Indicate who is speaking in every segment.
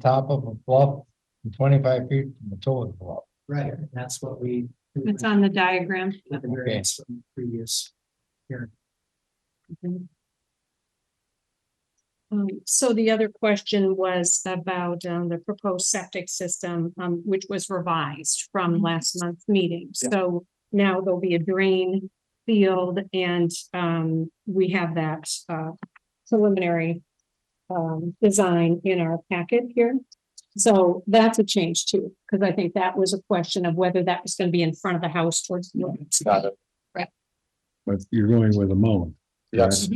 Speaker 1: top of a bluff and twenty-five feet from the toe of the bluff.
Speaker 2: Right, and that's what we. we
Speaker 3: It's
Speaker 2: went
Speaker 3: on the diagram.
Speaker 2: with the variance from the Previous.
Speaker 3: Um, so the other question was about, um, the proposed septic system, um, which was revised from last month's meeting.
Speaker 2: Yeah.
Speaker 3: So now there'll be a drain field and, um, we have that, uh, preliminary, um, design in our packet here. So that's a change too, because I think that was a question of whether that was going to be in front of the house towards. the north.
Speaker 4: it.
Speaker 5: But you're going with a mound.
Speaker 4: Yes,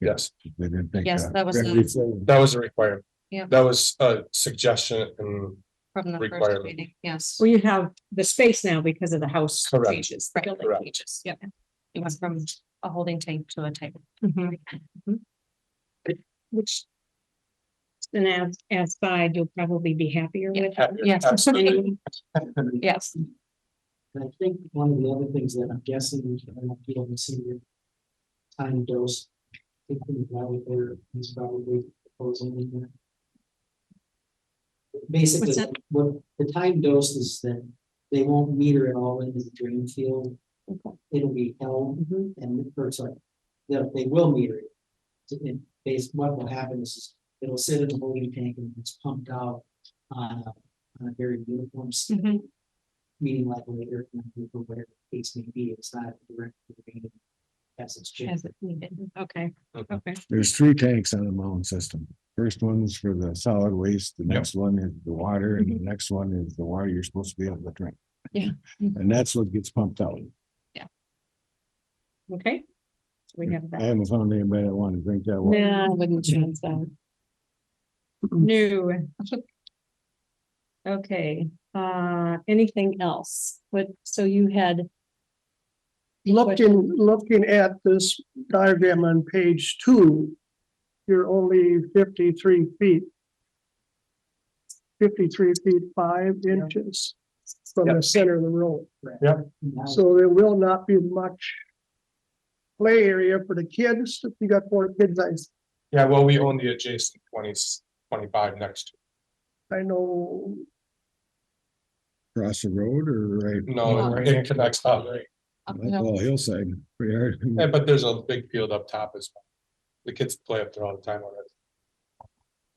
Speaker 4: yes.
Speaker 5: They didn't think
Speaker 6: Mm-hmm. Yes,
Speaker 5: that.
Speaker 6: that was the-
Speaker 4: That was a requirement.
Speaker 6: Yeah.
Speaker 4: That was a suggestion and
Speaker 6: from the first
Speaker 4: requirement.
Speaker 6: meeting, yes.
Speaker 3: Well, you have the space now because of the house
Speaker 4: Correct.
Speaker 3: changes, the
Speaker 6: Right,
Speaker 3: building
Speaker 4: Correct.
Speaker 3: changes, yep.
Speaker 6: It went from a holding tank to a tank.
Speaker 3: Mhm. Which. And as, as side, you'll probably be happier
Speaker 6: Yeah.
Speaker 3: with.
Speaker 6: Yes.
Speaker 4: Absolutely.
Speaker 3: And
Speaker 2: And
Speaker 6: Yes,
Speaker 2: I think one of the other things that I'm guessing, I don't know if you haven't seen it. Time dose. I think we probably there, he's probably proposing in there. Basically,
Speaker 3: What's that?
Speaker 2: what the time dose is that they won't meter it all into the drain field. It'll be held
Speaker 3: Mhm.
Speaker 2: and the first like, they, they will meter it. So it base, what will happen is it'll sit in a holding tank and it's pumped out on a, on a very uniform, s-
Speaker 6: Mm-hmm.
Speaker 3: Mhm.
Speaker 2: meeting like later, whatever the case may be, it's not direct. to the main As it's
Speaker 3: As
Speaker 2: changed.
Speaker 3: it needed, okay,
Speaker 4: Mhm.
Speaker 3: okay.
Speaker 5: There's three tanks on the mound system. First one's for the solid waste, the
Speaker 4: Yep.
Speaker 5: next one is the water, and the next one is the water you're supposed to be able to drink.
Speaker 6: Mm-hmm. Yeah.
Speaker 5: And that's what gets pumped out.
Speaker 3: Okay. So We have
Speaker 5: I
Speaker 3: that.
Speaker 5: haven't found anybody that wanted to drink that water.
Speaker 3: No, I wouldn't change that. New. Okay, uh, anything else? But, so you had,
Speaker 7: Looking, looking at this diagram on page two, you're only fifty-three feet. Fifty-three feet, five inches from the center of the road.
Speaker 2: Now,
Speaker 7: So there will not be much play area for the kids. If you got four kids, I,
Speaker 4: Yeah, well, we own the adjacent twenties, twenty-five next. to
Speaker 7: I know
Speaker 5: Across the road or right?
Speaker 4: it. No, it connects up.
Speaker 6: up
Speaker 5: That's
Speaker 6: hill.
Speaker 5: all hillside, pretty hard.
Speaker 4: Yeah, but there's a big field up top as well. The kids play up there all the time already.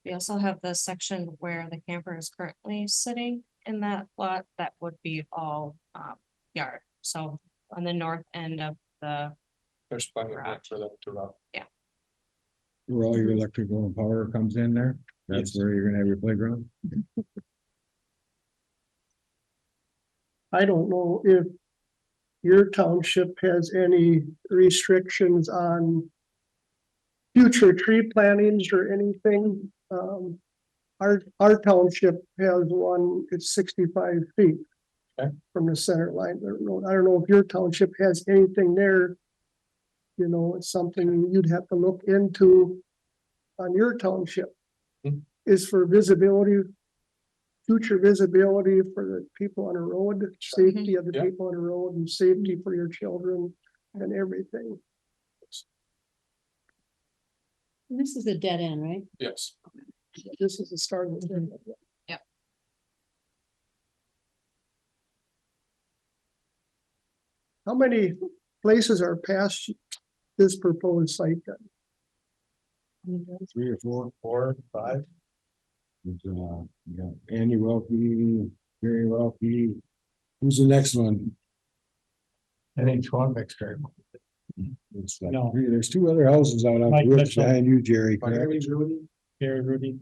Speaker 6: we also have the section where the camper is currently sitting in that lot, that would be all um yard. So on the north end of the,
Speaker 4: There's plenty of room for them to run.
Speaker 5: Where all your electrical and power comes in there, that's
Speaker 4: Yes.
Speaker 5: where you're gonna have your playground.
Speaker 7: I don't know if your township has any restrictions on future tree plantings or anything. Um, our, our township has one, it's sixty-five feet
Speaker 4: Okay.
Speaker 7: from the center line of the road. I don't know if your township has anything there. You know, it's something you'd have to look into on your township
Speaker 4: Hmm.
Speaker 7: is for visibility future visibility for the people on the road, safety of the
Speaker 4: Yeah.
Speaker 7: people on the road and safety for your children and everything.
Speaker 3: this is a dead end, right?
Speaker 4: Yes.
Speaker 7: This is the start of the. How many places are past this proposed site then?
Speaker 5: Three or four.
Speaker 4: Four, five,
Speaker 5: It's, uh, you got Andy Welke, Gary Welke. Who's the next one?
Speaker 1: And each one makes very much.
Speaker 5: It's like
Speaker 1: No.
Speaker 5: three- There's two other houses out on
Speaker 1: Mike
Speaker 5: the ridge
Speaker 1: Mitchell.
Speaker 5: behind you, Jerry.
Speaker 4: Mike
Speaker 5: correct?
Speaker 1: Gary Rudy.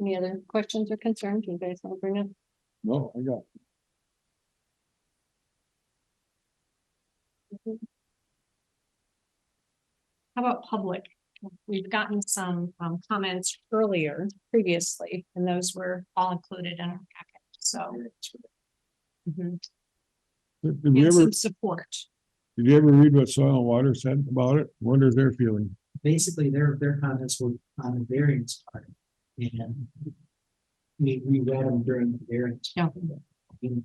Speaker 3: Any other questions or concerns you guys want to bring up?
Speaker 5: No, I got.
Speaker 3: How about public? We've gotten some um, comments earlier, previously, and those were all included in our packet, so. Mhm.
Speaker 5: Did did you
Speaker 3: And
Speaker 5: ever,
Speaker 3: some support.
Speaker 5: did you ever read what Soil and Water said about it? What is their feeling?
Speaker 2: Basically, their, their comments were on the variance part and we, we read them during the variance.
Speaker 3: Yeah.
Speaker 2: And